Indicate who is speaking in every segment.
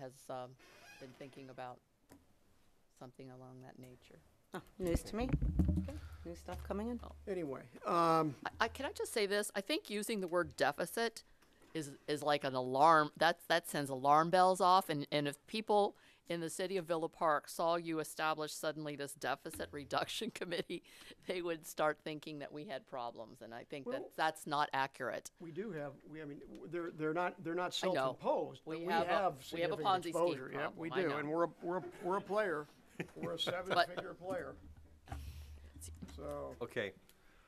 Speaker 1: has um, been thinking about something along that nature.
Speaker 2: Oh, News to me. New stuff coming in.
Speaker 3: Anyway, um,
Speaker 1: I- I, can I just say this? I think using the word deficit is is like an alarm. That that sends alarm bells off. And and if people in the city of Villa Park saw you establish suddenly this deficit reduction committee, they would start thinking that we had problems. And I think that
Speaker 3: Well-
Speaker 1: that's not accurate.
Speaker 3: we do have, we, I mean, w- they're, they're not, they're not
Speaker 1: I know.
Speaker 3: self-imposed,
Speaker 1: We
Speaker 3: but we
Speaker 1: have a-
Speaker 3: have
Speaker 1: we have a
Speaker 3: significant
Speaker 1: Ponzi scheme
Speaker 3: exposure. Yep, we
Speaker 1: problem, I
Speaker 3: do,
Speaker 1: know.
Speaker 3: and we're, a- we're, a- we're a player. We're a seven-figure player. So,
Speaker 4: Okay,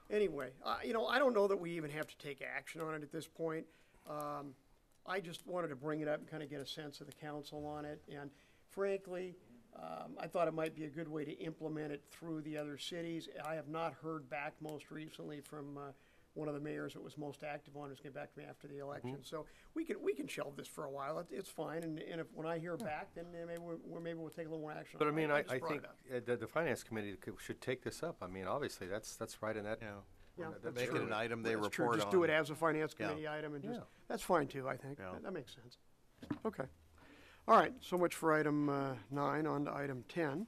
Speaker 3: anyway, uh, you know, I don't know that we even have to take action on it at this point. Um, I just wanted to bring it up and kind of get a sense of the council on it, and frankly, um, I thought it might be a good way to implement it through the other cities. I have not heard back most recently from, uh, one of the mayors that was most active on, who's getting back to me after the
Speaker 4: Mm-hmm.
Speaker 3: election. So we can, we can shelve this for a while, it, it's fine, and, and if, when I hear back, then uh, maybe we'll, we'll- maybe we'll take a little more action.
Speaker 4: but I
Speaker 3: on it.
Speaker 4: mean, I,
Speaker 3: just
Speaker 4: I
Speaker 3: brought it
Speaker 4: think
Speaker 3: up.
Speaker 4: uh, the, the finance committee could- should take this up. I mean, obviously, that's, that's right in that.
Speaker 5: Yeah.
Speaker 3: Yeah,
Speaker 4: that-
Speaker 3: that's
Speaker 4: that's
Speaker 5: Make
Speaker 3: true.
Speaker 5: it an item they
Speaker 3: That's true.
Speaker 5: report
Speaker 3: Just do it
Speaker 5: on.
Speaker 3: as a finance
Speaker 5: Yeah.
Speaker 3: committee item and just,
Speaker 4: Yeah.
Speaker 3: that's fine too, I think.
Speaker 5: Yeah.
Speaker 3: That that makes sense. Okay. All right, so much for item uh, nine, on to item 10.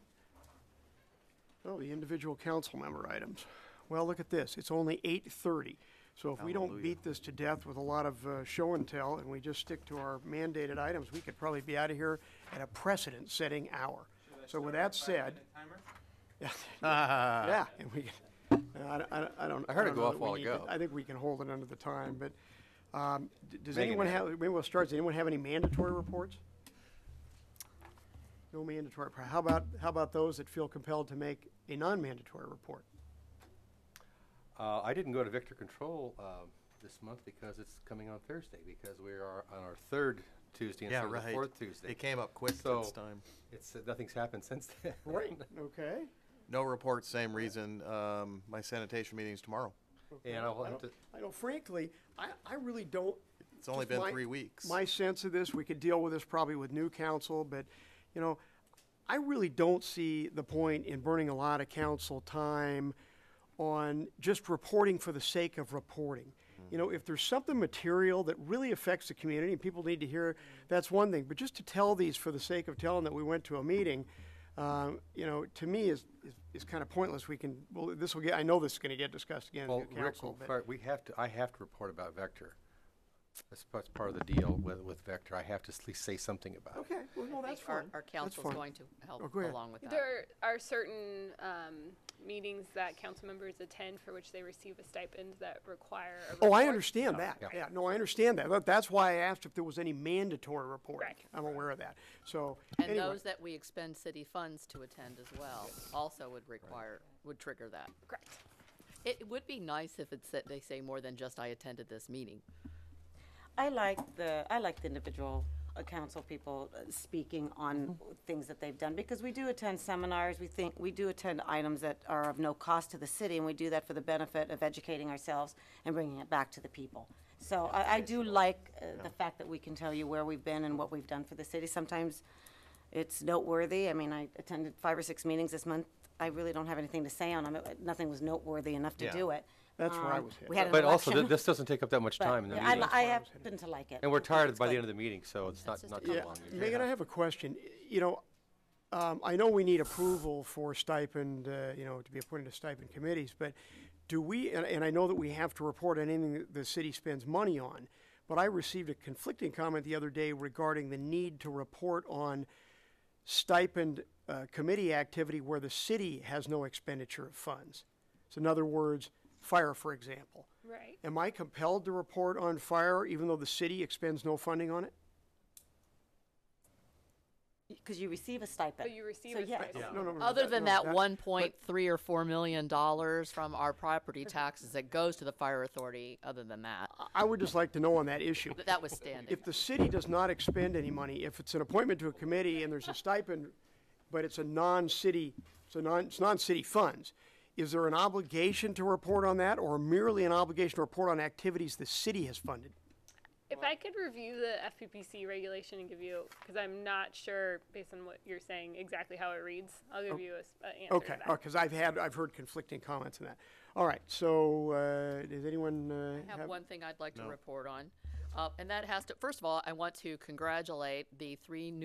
Speaker 3: Oh, the individual council member items. Well, look at this, it's only 8:30. So if we don't
Speaker 5: Hallelujah.
Speaker 3: beat this to death with a lot of uh, show and tell and we just stick to our mandated items, we could probably be out of here at a precedent-setting hour. So with that said. Yeah, and we, no, I, don't- I don't- I don't.
Speaker 4: Ah. I heard it
Speaker 3: don't
Speaker 4: go
Speaker 3: know
Speaker 4: off
Speaker 3: that
Speaker 4: a
Speaker 3: we
Speaker 4: while
Speaker 3: need to-
Speaker 4: ago.
Speaker 3: I think we can hold it under the time, but, um, d- does
Speaker 4: Megan
Speaker 3: anyone
Speaker 4: had
Speaker 3: have, maybe we'll start, does anyone have any mandatory reports? No mandatory, how about, how about those that feel compelled to make a non-mandatory report?
Speaker 4: Uh, I didn't go to Victor Control, um, this month because it's coming on Thursday, because we are on our third Tuesday instead
Speaker 5: Yeah,
Speaker 4: of the
Speaker 5: right.
Speaker 4: fourth Tuesday.
Speaker 5: It came up quick
Speaker 4: So-
Speaker 5: this time.
Speaker 4: It's, uh, nothing's happened since then.
Speaker 3: Okay,
Speaker 5: No reports, same reason. Um, my sanitation meeting's tomorrow.
Speaker 4: And I'll have to,
Speaker 3: I know frankly, I, I really don't.
Speaker 5: It's only
Speaker 3: just
Speaker 5: been
Speaker 3: my-
Speaker 5: three weeks.
Speaker 3: My sense of this, we could deal with this probably with new council, but, you know, I really don't see the point in burning a lot of council time on just reporting for the sake of reporting. You know, if there's something material that really affects the community and people need to hear, that's one thing. But just to tell these for the sake of telling that we went to a meeting, um, you know, to me is, is, is kind of pointless. We can, well, this will get, I know this is going to get discussed again
Speaker 4: well,
Speaker 3: in new
Speaker 4: Rick,
Speaker 3: council. but-
Speaker 4: fir- we have to, I have to report about Vector. That's, that's part of the deal with, with Vector. I have to at least say something about it.
Speaker 3: Okay, well, no,
Speaker 1: I
Speaker 3: that's
Speaker 1: think our,
Speaker 3: fine.
Speaker 1: our
Speaker 3: That's
Speaker 1: council's
Speaker 3: fine.
Speaker 1: going to help
Speaker 3: Oh, go ahead.
Speaker 1: along with that.
Speaker 6: There are certain um, meetings that council members attend for which they receive a stipend that require a
Speaker 3: Oh, I
Speaker 6: report.
Speaker 3: understand that. Yeah, no, I understand that. That- That's why I asked if there was any mandatory reporting.
Speaker 6: Correct.
Speaker 3: I'm aware of that. So,
Speaker 1: And
Speaker 3: anyway,
Speaker 1: those that we expend city funds to attend as well also would require, would trigger that.
Speaker 6: Correct.
Speaker 1: It would be nice if it said, they say more than just I attended this meeting.
Speaker 2: I like the, I like the individual uh, council people uh, speaking on
Speaker 3: Mm-hmm.
Speaker 2: things that they've done, because we do attend seminars, we think, we do attend items that are of no cost to the city, and we do that for the benefit of educating ourselves and bringing it back to the people. So I, I do like uh, the fact that we can tell you where we've been and what we've done for the city. Sometimes it's noteworthy. I mean, I attended five or six meetings this month. I really don't have anything to say on them. Nothing was noteworthy enough to
Speaker 5: Yeah.
Speaker 2: do it.
Speaker 3: That's where I
Speaker 2: Um,
Speaker 3: was hit.
Speaker 2: We had an
Speaker 4: But also,
Speaker 2: election.
Speaker 4: th- this doesn't take up that much
Speaker 2: But,
Speaker 4: time in the
Speaker 2: yeah, I
Speaker 4: meeting.
Speaker 2: li- I happen to like it.
Speaker 4: And we're
Speaker 2: I think
Speaker 4: tired
Speaker 2: it's
Speaker 4: by the
Speaker 2: good.
Speaker 4: end of the meeting, so it's not,
Speaker 1: just
Speaker 4: not
Speaker 1: a
Speaker 4: too
Speaker 3: yeah,
Speaker 4: long. You're
Speaker 3: Megan, I have a question. You know, um, I know we need approval for stipend, uh, you know, to be appointed to stipend committees, but do we, and, and I know that we have to report on anything that the city spends money on, but I received a conflicting comment the other day regarding the need to report on stipend uh, committee activity where the city has no expenditure of funds. So in other words, fire, for example.
Speaker 6: Right.
Speaker 3: Am I compelled to report on fire even though the city expends no funding on it?
Speaker 2: Because you receive a stipend.
Speaker 6: But you receive
Speaker 2: So,
Speaker 6: a
Speaker 2: yeah.
Speaker 6: stipend.
Speaker 3: No, no, no, no,
Speaker 1: Other than
Speaker 3: no,
Speaker 1: that one point three or four million dollars from our property taxes that goes to the fire authority, other than that,
Speaker 3: I- I would just like to know on that issue.
Speaker 1: th- that was standing.
Speaker 3: If the city does not expend any money, if it's an appointment to a committee and there's a stipend, but it's a non-city, it's a non, it's non-city funds, is there an obligation to report on that or merely an obligation to report on activities the city has funded?
Speaker 6: If I could review the FPPC regulation and give you, because I'm not sure based on what you're saying exactly how it reads, I'll give you a, s- a answer
Speaker 3: Oh. Okay,
Speaker 6: to that.
Speaker 3: because I've had, I've heard conflicting comments on that. All right, so, uh, does anyone, uh,
Speaker 1: I
Speaker 3: have?
Speaker 1: have one thing I'd like to report on, uh, and that has to, first of all, I want to congratulate the three new